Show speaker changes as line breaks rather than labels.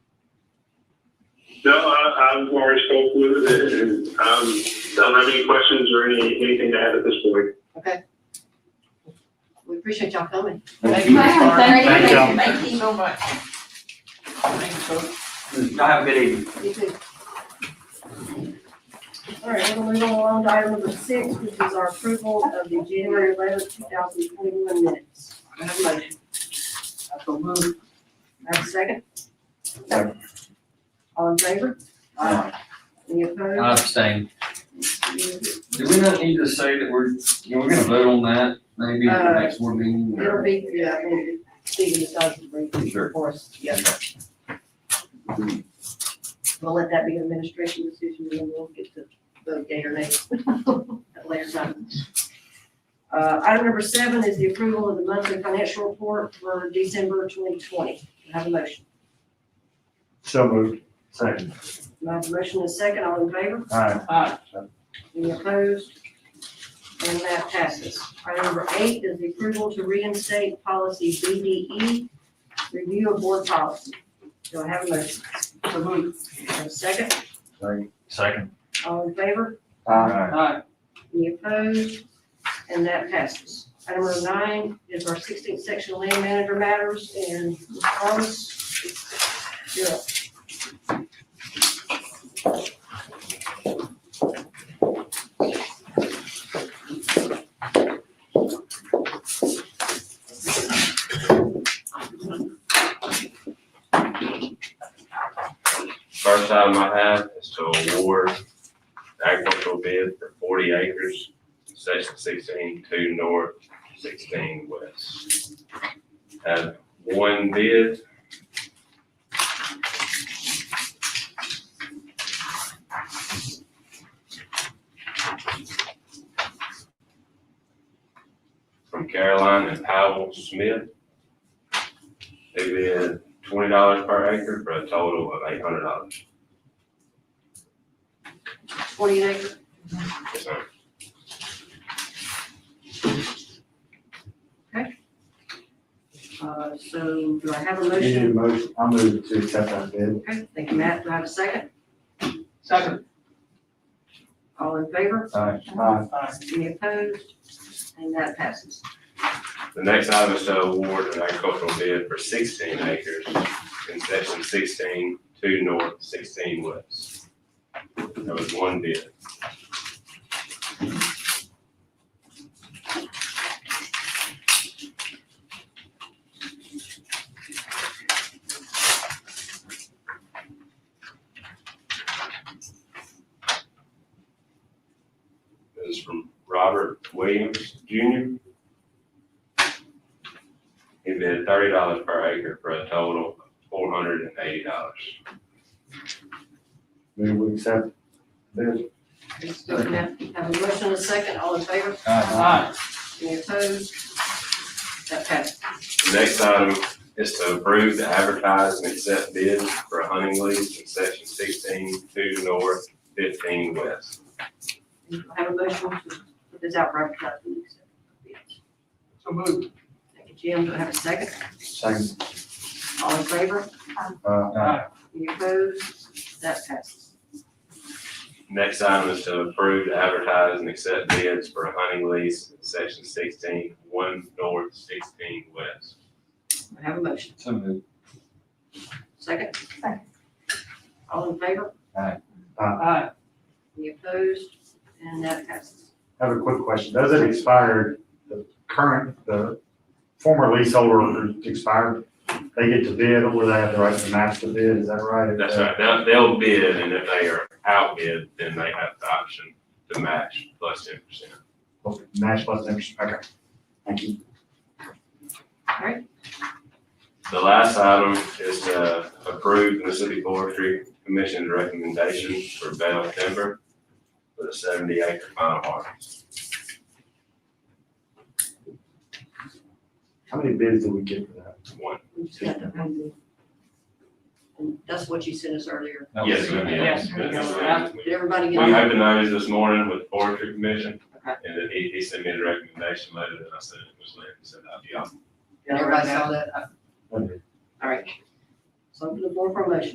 No, I, I've already spoke with it, and, um, don't have any questions or any, anything to add at this point.
We appreciate y'all coming.
Thank
you. Thank you.
Thank you so much. Thanks, folks.
Y'all have a good evening.
You too.
All right, we're gonna move on along to item number six, which is our approval of the January eleventh, two thousand twenty-one minutes.
I have a motion.
I so move. Have a second? All in favor? Any
I
opposed?
abstain. Do we not need to say that we're, you know, we're gonna vote on that maybe at the next board meeting? or-
It'll be, yeah, I mean, Stephen decides to bring it
Sure.
for us. Yeah. We'll let that be an administration decision, and then we'll get to vote yea or nay at a later time. Uh, item number seven is the approval of the monthly financial report for December twenty twenty. Have a motion.
So moved. Second.
I have a motion and a second, all in favor?
Aye.
Aye.
Any opposed? And that passes. Item number eight is the approval to reinstate policy BDE, review of board policy. Do I have a motion? So moved. Have a second,
Second.
all in favor?
Aye.
Aye.
Any opposed? And that passes. Item number nine is our sixteenth section land manager matters and Ms. Thomas. you're up.
First item I have is to award agricultural bid for forty acres, section sixteen, two north, sixteen west. Have one bid. From Caroline and Powell Smith. They bid twenty dollars per acre for a total of eight hundred dollars.
Twenty acres.
Yes, ma'am.
Uh, so do I have a
You need a
motion?
motion, I move to accept that bid.
Okay, thank you, Matt. Do I have a second?
Second.
All in favor?
Aye. Aye.
Aye.
Any opposed? And that passes.
The next item is to award an agricultural bid for sixteen acres in section sixteen, two north, sixteen west. That was one bid. This is from Robert Williams Jr. He bid thirty dollars per acre for a total of four hundred and eighty dollars.
Move we accept bid.
Let's go now. Have a motion and a second. All in favor?
Aye.
Any opposed? That passes.
The next item is to approve the advertise and accept bids for hunting lease in section sixteen, two north, fifteen west.
Do I Have a motion to put this out for advertising.
So moved.
Thank you, Jim. Do I have a second?
Second.
All in favor?
Aye.
Any opposed? That passes.
Next item is to approve the advertise and accept bids for hunting lease in section sixteen, one north, sixteen west.
Do I have a motion.
So moved.
Second? All in favor?
Aye.
Any opposed? And that passes.
I Have a quick question. Does it expire, the current, the former leaseholder expired? They get to bid or they have the right to match the bid, is that right?
That's right, they'll, they'll bid, and if they are outbid, then they have the option to match plus ten percent.
Okay, Match plus interest, okay. Thank you.
The last item is uh, to approve Mississippi Forestry Commission's recommendation for bale timber for the seventy acre final harvest.
How many bids did we get for that?
One,
We just got the- And that's what you sent us earlier.
That was-
yes, ma'am, yes. yes, ma'am.
Did everybody
We
get it?
opened those this morning with Forestry Commission,
Okay.
and then he, he sent me the recommendation letter, and I said it was late, so I'll be off.
Everybody saw that?
One bid.
All right. So I'm looking for a motion.